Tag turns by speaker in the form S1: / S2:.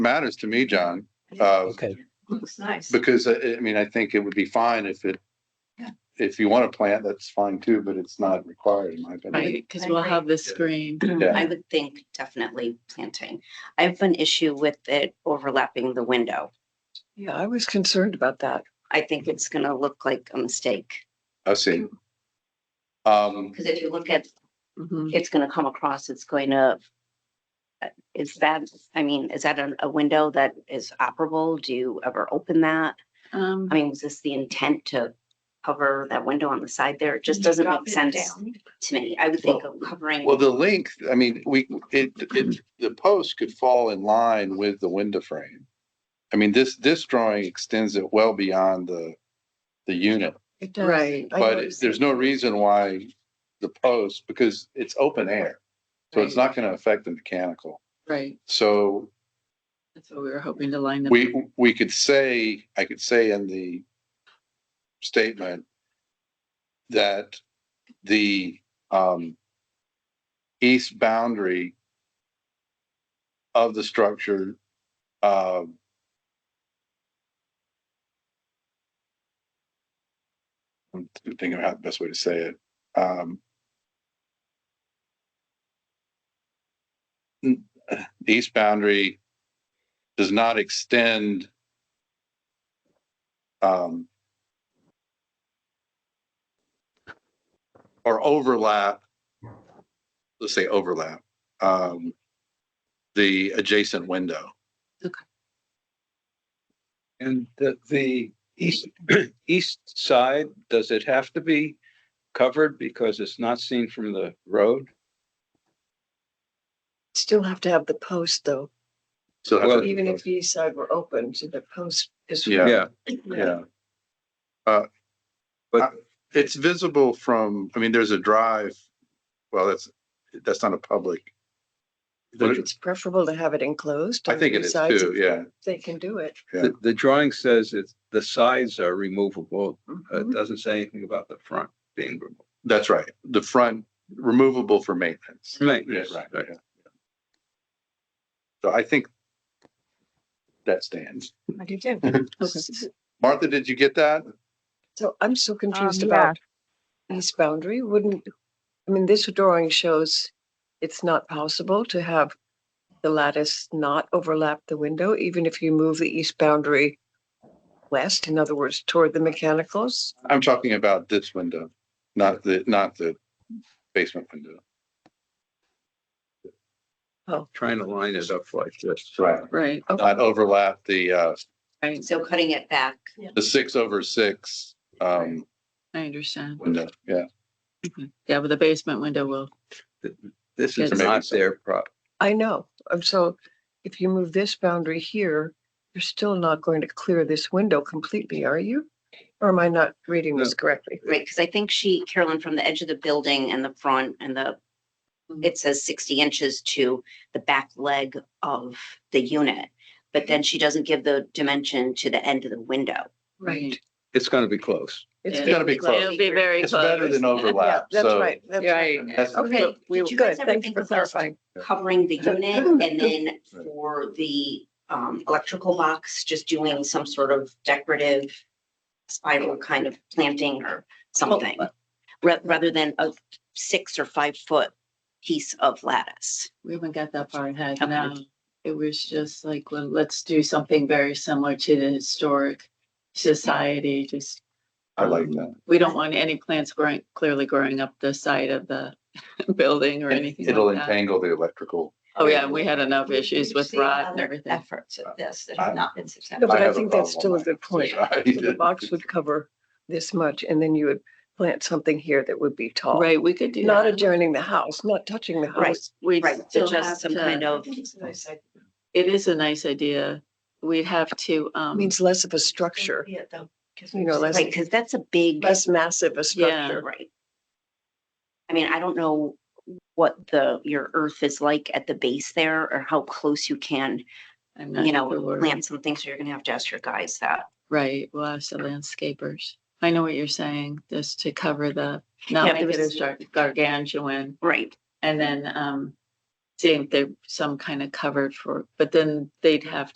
S1: matters to me, John,
S2: Yeah,
S1: uh,
S3: Okay,
S2: Looks nice.
S1: because uh, I, I mean, I think it would be fine if it,
S2: Yeah.
S1: if you want to plant, that's fine too, but it's not required in my opinion.
S4: Right, because we'll have the screen.
S1: Yeah.
S5: I would think definitely planting. I have an issue with it overlapping the window.
S4: Yeah, I was concerned about that.
S5: I think it's gonna look like a mistake,
S1: I see. Um,
S5: because if you look at,
S4: Mhm.
S5: it's gonna come across, it's going to. uh, Is that, I mean, is that a, a window that is operable? Do you ever open that?
S4: Um,
S5: I mean, was this the intent to cover that window on the side there? It just doesn't
S2: Drop
S5: make
S2: it
S5: sense
S2: down.
S5: to me. I would think of covering.
S1: well, the length, I mean, we, it, it, the post could fall in line with the window frame. I mean, this, this drawing extends it well beyond the, the unit,
S2: It does.
S4: Right. I
S1: but
S4: noticed
S1: there's no reason why the post, because it's open air. So it's
S4: Right.
S1: not going to affect the mechanical.
S4: that, Right,
S1: So
S4: that's what we were hoping to line them.
S1: We, we could say, I could say in the statement that the, um, east boundary of the structure, um, I'm thinking of how the best way to say it, um, n- the east boundary does not extend um, or overlap, let's say overlap, um, the adjacent window.
S6: And the, the east, east side, does it have to be covered because it's not seen from the road?
S7: Still have to have the post though,
S1: So that's-
S6: Well,
S7: even if the east side were open, so the post is.
S1: Yeah. Yeah. Uh, but it's visible from, I mean, there's a drive, well, that's, that's not a public.
S7: But it's preferable to have it enclosed.
S1: I
S7: on
S1: think it
S7: three
S1: is
S7: sides
S1: too,
S7: if
S1: yeah.
S7: They can do it.
S1: Yeah.
S6: The, the drawing says it's, the sides are removable. Uh, It
S7: Mhm.
S6: doesn't say anything about the front being removable.
S1: That's right. The front removable for maintenance.
S6: Right.
S7: Mm-hmm.
S1: Yeah, right, right. yeah. So I think that stands.
S2: I do too.
S7: Mm-hmm. S-
S1: Martha, did you get that?
S7: So I'm so confused
S2: Um,
S7: about east boundary wouldn't, I mean, this drawing shows it's not possible to have the lattice not overlap the window, even if you move the east boundary west, in other words, toward the mechanicals.
S1: I'm talking about this window, not the, not the basement window.
S6: Trying to line it up like this.
S1: Right.
S4: Right,
S1: Not overlap the, uh,
S4: right,
S5: So cutting it back.
S1: the six over six, um,
S4: I understand.
S1: window, yeah.
S4: Yeah, but the basement window will,
S6: This is
S4: Yes.
S6: not their prop.
S7: I know. Um, so if you move this boundary here, you're still not going to clear this window completely, are you? Or am I not reading this correctly?
S5: Right, because I think she, Carolyn, from the edge of the building and the front and the,
S4: Mhm.
S5: it says sixty inches to the back leg of the unit. But then she doesn't give the dimension to the end of the window.
S4: right.
S6: It's gonna be close.
S7: It's
S4: Yeah.
S1: It's gotta be
S4: It'll
S1: close.
S4: be very
S1: It's
S4: close.
S1: better than
S7: Yeah,
S1: overlap,
S7: that's
S1: so.
S7: right. That's
S4: Right.
S1: that's-
S7: Okay,
S5: Did you
S7: good.
S5: guys ever
S7: Thanks
S5: think
S7: for
S5: of those
S7: clarifying.
S5: covering the unit and then for the um electrical box, just doing some sort of decorative spiral kind of planting or something, ra- rather than a six or five foot piece of lattice.
S4: We haven't got that far ahead
S5: Okay.
S4: now. It was just like, well, let's do something very similar to the historic society, just.
S1: I like that.
S4: We don't want any plants growing, clearly growing up the side of the building or anything
S1: It'll
S4: like that.
S1: entangle the electrical.
S4: Oh, yeah, we had enough issues with
S2: We've seen
S4: rot and
S2: other
S4: everything.
S2: Efforts at this that
S1: I-
S2: have not been
S7: No,
S2: successful.
S7: but
S1: I
S7: I
S1: have a
S7: think that's still
S1: problem
S7: a good point.
S1: I
S7: So The
S1: did.
S7: box would cover this much and then you would plant something here that would be tall.
S4: Right, we could do
S7: Not
S4: that.
S7: adjoining the house, not touching the
S5: Right.
S7: house.
S4: We'd
S5: Right, so
S4: still have
S5: just some kind
S4: to,
S5: of,
S4: it is a nice idea. We'd have to, um,
S7: Means less of a structure, You know, less-
S5: right, because that's a big,
S7: less massive a structure.
S5: right. I mean, I don't know what the, your earth is like at the base there or how close you can,
S4: I'm not
S5: you know,
S4: sure.
S5: plant something. So you're gonna have to ask your guys that.
S4: Right, we'll ask the landscapers. I know what you're saying, just to cover the,
S5: Yeah,
S4: not make it
S5: because-
S4: as gar- gargantuan.
S5: Right,
S4: And then, um, seeing if there's some kind of covered for, but then they'd have